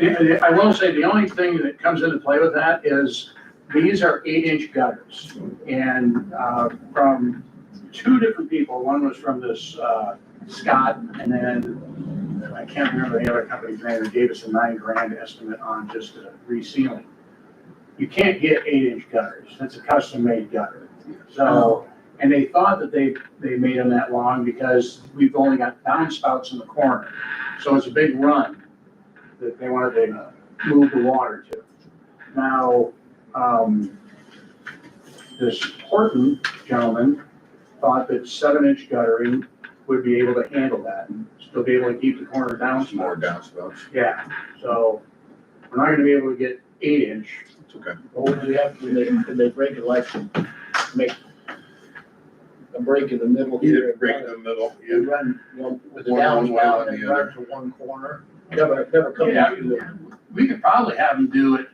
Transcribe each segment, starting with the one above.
I I will say, the only thing that comes into play with that is, these are eight-inch gutters. And uh, from two different people, one was from this uh, Scott, and then, I can't remember the other company's name, that gave us a nine grand estimate on just the resealing. You can't get eight-inch gutters, that's a custom-made gutter. So, and they thought that they, they made them that long because we've only got downspouts in the corner. So it's a big run that they wanted to move the water to. Now, um, this Horton gentleman thought that seven inch guttering would be able to handle that and still be able to keep the corner down. Some more downspouts, Yeah, so we're not gonna be able to get eight inch. it's okay. Well, do we have, can they, can they break it like, to make a break in the middle here? Either and break run in it- the middle, You yeah, run, you know, with the One on one, downspout one and the run other. to one corner, never, never come Yeah. out to the. We could probably have them do it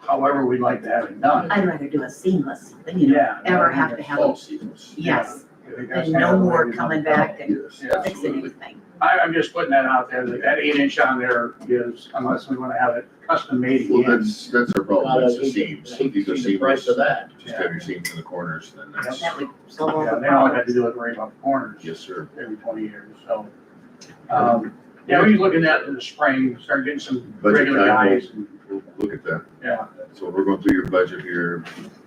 however we'd like to have it done. I'd rather do a seamless than you Yeah. ever have to have, all seamless. yes, I think that's and no kinda the way more we coming want it. back and Yes, fixing absolutely. anything. I, I'm just putting that out there, that that eight inch on there is, unless we wanna have it custom made Well, again. that's, that's our problem, God, that's I the hate to- seams, I hate to these are see the Price of seamless, that. just have your seams in the corners, then that's, That would solve all Yeah, the they all had to problems. do it right about the corners yes, sir. every twenty years, so. Um, yeah, we can look at that in the spring, start getting some Budget regular time, we'll- guys, and- we'll look at that. yeah, So we're going through your budget here,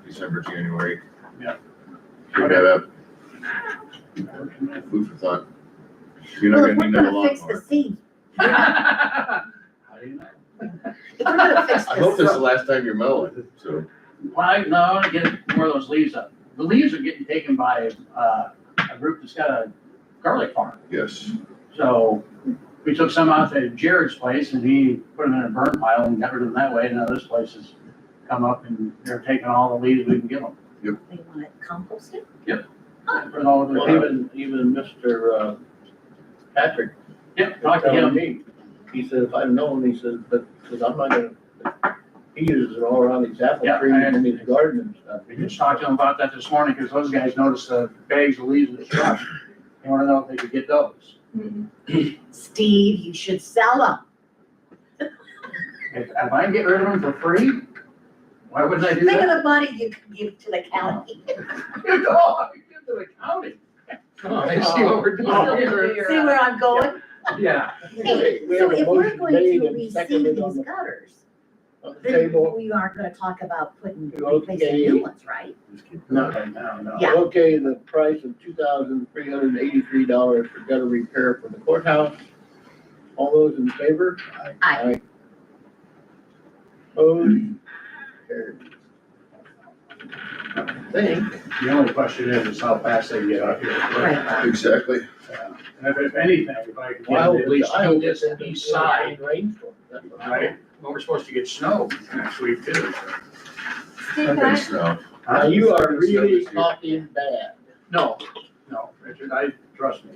December, January. Yeah. Pick that up, food for thought. You're not Well, if gonna we're need another gonna fix the lawnmower. seam, How do you know? if we're gonna fix I hope this is this, the last time you're mowing, so. Why, no, I wanna get more of those leaves up. The leaves are getting taken by, uh, a group that's got a garlic farm. Yes, So we took some out to Jared's place and he put them in a burn pile and got rid of them that way. And now this place has come up and they're taking all the leaves we can give them. they want it composted, Put it all over the Well, pavement. even, even Mr. uh, Patrick, Yep, talk to him. he said, if I'd known, he said, but, because I'm not gonna, he uses it all around his apple Yeah, tree I- and his garden and stuff. We just talked to him about that this morning because those guys noticed the bags of leaves in the truck. They wanna know if they could get those. Steve, you should sell them. If, if I can get rid of them for free, why wouldn't I do Think that? of the money you could give to the county. Good dog, give to the county. Come on, I see what we're doing here. See where uh, I'm going? Yeah, Hey, We so have a if we're motion going made to and receive seconded on these the- gutters, on the then Table, we aren't gonna talk about putting, replacing Okay. new ones, right? just keep no, no, no. Yeah. Okay, the price of two thousand three hundred and eighty-three dollars for gutter repair for the courthouse. All those in favor? Aye. Opposed? Carried. I Think, The only question is, is how fast they get out here. Uh, Right. Exactly. And if- if anything, if I could get why at would least the Iowa two this get east side, Rainstorm, that's what I right? Well, we're supposed to get snow next week too. Steve, can I, Thanks, now. Now, you are really Huh? talking bad. No, no, Richard, I, trust me.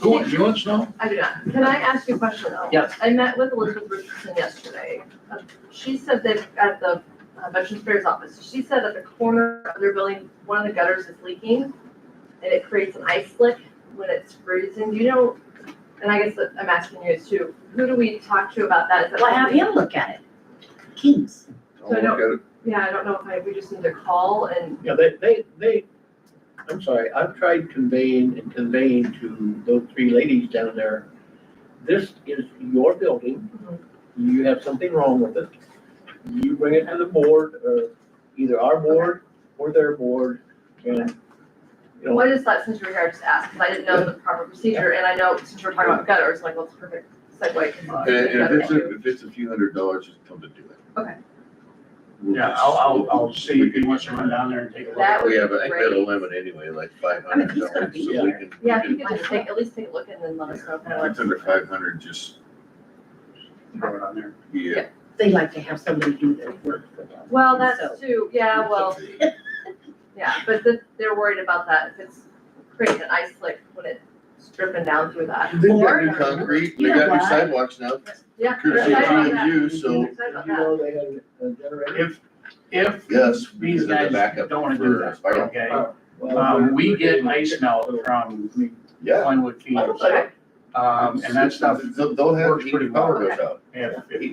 Who, wants- you want snow? I do not, can I ask you a question though? Yes. I met with Elizabeth Richardson yesterday. Uh, She said that at the uh, Veterans Affairs Office, she said at the corner of their building, one of the gutters is leaking and it creates an ice slick when it's freezing. Do you know, and I guess that I'm asking you is too, who do we talk to about that? Is that Well, have him look at it. Kings. I'll look at it. Yeah, I don't know if I, we just need to call and Yeah, they, they, they, I'm sorry, I've tried conveying and conveying to those three ladies down there. This is your building. Mm-hmm. You have something wrong with it. You bring it to the board, or either our board or their board, and, you know, What is that since you were here, I just asked, because I didn't know the proper procedure, and I know since we're talking about gutters, like, what's the perfect segue? Uh, 'cause And, and obviously if it's, gutters a- if it's a few hundred dollars, just come to do it. Okay. We'll Yeah, just- I'll, I'll, we'll- I'll see if he wants to run down there and take a look. That We would have, I think we have a great. limit anyway, like five I mean, hundred he's gonna dollars, be so we there. can. Yeah, if you could just take, at least take a look and then let us know. kind of If it's under five hundred, just, Throw it on there. yeah. They like to have somebody do their work for them. what- Well, So- that's too, yeah, well, yeah, but the- they're worried about that, if it's creating an ice slick when it's dripping down through that. They got Or- new concrete, they You know got new what? sidewalks now, Yeah. courtesy of G I'm excited about and U, so, that. Excited did about you that. know they had a generator? If, if yes. these because of the guys backup don't wanna for do that, spiral. okay? Well, Um, we we're get getting- ice melt from Yeah. Glenwood Fields. Okay. Um, and that stuff, They'll, they'll have, works pretty heat power well. goes out. if, if